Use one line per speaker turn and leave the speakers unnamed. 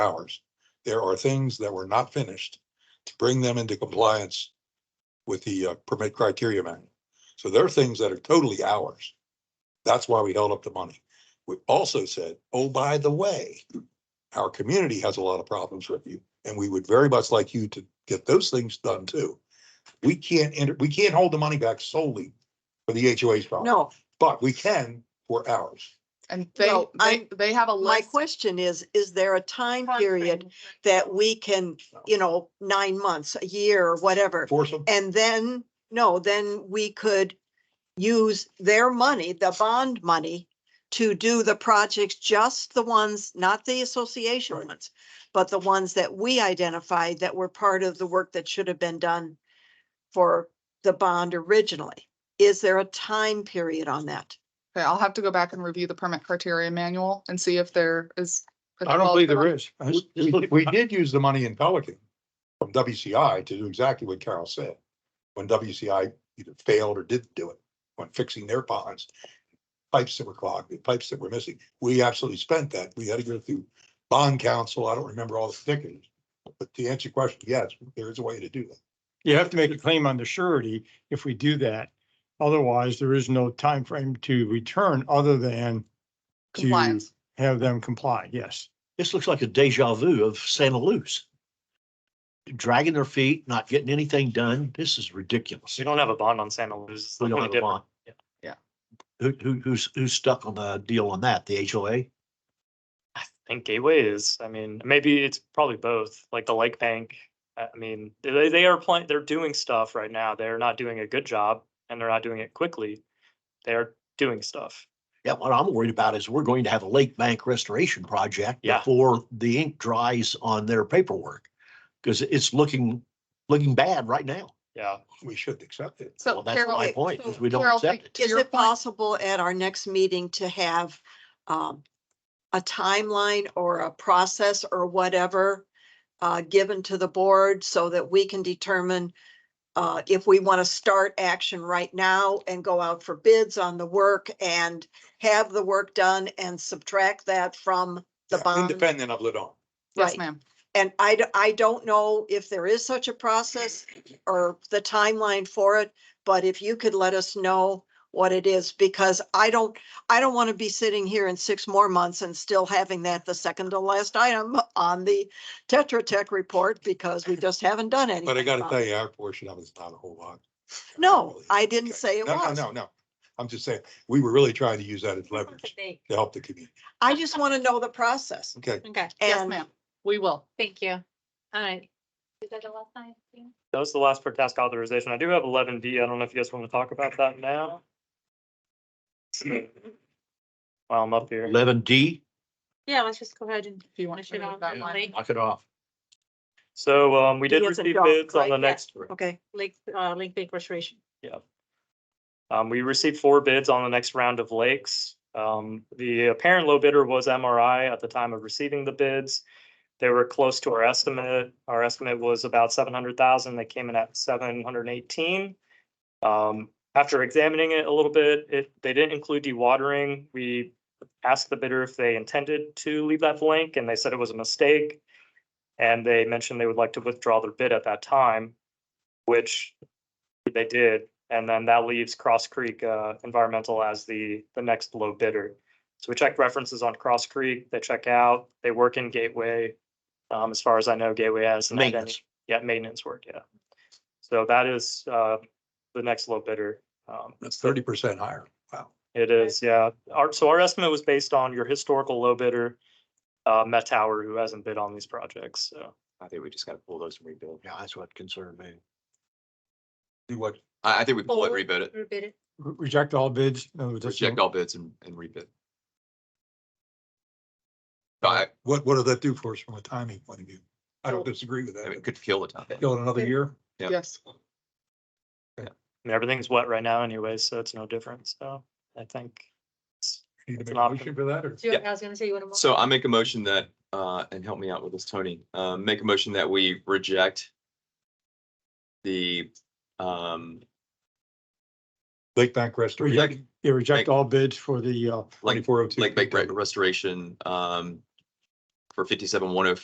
hours. There are things that were not finished to bring them into compliance with the uh, permit criteria manual. So there are things that are totally ours. That's why we held up the money. We also said, oh, by the way, our community has a lot of problems with you, and we would very much like you to get those things done too. We can't, enter- we can't hold the money back solely for the HOA's problem,
No,
but we can for ours.
And they,
No,
they,
I'm-
they have a
my
list.
question is, is there a time period that we can, you know, nine months, a year or whatever?
Force them.
And then, no, then we could use their money, the bond money, to do the projects, just the ones, not the association
Right.
ones, but the ones that we identified that were part of the work that should have been done for the bond originally. Is there a time period on that?
Okay, I'll have to go back and review the permit criteria manual and see if there is. if
I
it
don't
calls
believe
for-
there is. I
We-
just- just
We
look-
we did use the money in Pelican from WCI to do exactly what Carol said. When WCI either failed or didn't do it, when fixing their ponds, pipes that were clogged, the pipes that were missing, we absolutely spent that. We had to go through bond council. I don't remember all the particulars. But to answer your question, yes, there is a way to do that.
You have to make a claim on the surety if we do that. Otherwise, there is no time frame to return other than to
Compliance.
have them comply. Yes.
This looks like a deja vu of Santa Luz. Dragging their feet, not getting anything done. This is ridiculous.
We don't have a bond on Santa Luz. It's
We don't have
completely
a
different.
bond. Who, who, who's, who's stuck on the deal on that? The HOA?
I think Gateway is, I mean, maybe it's probably both, like the Lake Bank. I I mean, they, they are playing, they're doing stuff right now. They're not doing a good job and they're not doing it quickly. They're doing stuff.
Yeah, what I'm worried about is we're going to have a lake bank restoration project
Yeah.
before the ink dries on their paperwork. Because it's looking, looking bad right now.
Yeah.
We should accept it.
So
Well, that's
Carol,
my
okay,
point,
so
is we don't
Carol,
accept it.
to
Is
your
it
point-
possible at our next meeting to have um a timeline or a process or whatever uh given to the board so that we can determine uh if we want to start action right now and go out for bids on the work and have the work done and subtract that from the
Yeah,
bond?
Independent of Ladon.
Yes,
Right.
ma'am.
And I, d- I don't know if there is such a process or the timeline for it, but if you could let us know what it is, because I don't, I don't want to be sitting here in six more months and still having that the second to last item on the Tetra Tech report because we just haven't done anything.
But I gotta
about
tell
it.
you, our portion of it's not a whole lot.
No, I didn't
Okay.
say it
No, no,
was.
no, no. I'm just saying, we were really trying to use that as leverage to help the community.
I just want to know the process.
Okay.
Okay,
Yes,
And
ma'am. We will.
thank you. All right. Is that the last time?
That was the last per task authorization. I do have eleven B. I don't know if you guys want to talk about that now. While I'm up here.
Eleven D,
Yeah, let's just go ahead and.
If you want
finish
to
it
move
on
that
the
line.
Lake,
knock it off.
So, um, we did
He has a
receive
job,
bids
right?
on
Yeah.
the next
Okay,
Lake, uh, Lake Bank Restoration.
Um, we received four bids on the next round of lakes. Um, the apparent low bidder was MRI at the time of receiving the bids. They were close to our estimate. Our estimate was about seven hundred thousand. They came in at seven hundred and eighteen. Um, after examining it a little bit, it, they didn't include dewatering. We asked the bidder if they intended to leave that blank and they said it was a mistake. And they mentioned they would like to withdraw their bid at that time, which they did, and then that leaves Cross Creek uh, Environmental as the, the next low bidder. So we check references on Cross Creek, they check out, they work in Gateway. Um, As far as I know, Gateway has. not done-
Maintenance.
Yeah, maintenance work, yeah. So that is uh, the next low bidder. Um,
That's thirty percent higher. Wow.
It is, yeah. Our, so our estimate was based on your historical low bidder, uh, Met Tower, who hasn't bid on these projects, so.
I think we just gotta pull those and rebuild.
Yeah, that's what concerned me.
Do what?
I, I think we pull it,
Pull.
rebid it,
Rebid it.
Re- Reject all bids. No, just-
reject all bids and, and rebid. So I,
What, what does that do for us from a timing point of view? I don't disagree with
I mean, it
that.
could kill the topic.
Go in another year?
Yeah.
Yes.
I mean, everything's wet right now anyway, so it's no different, so I think. it's-
Need to
It's
make
an
a
option.
motion for that or?
Do you- I was gonna say you want to.
So I make a motion that, uh, and help me out with this, Tony, uh, make a motion that we reject the, um,
Lake Bank
Reject,
Restoration,
yeah, reject all bids for the, uh,
like,
twenty-four oh two.
like, like restoration, um, for fifty-seven one oh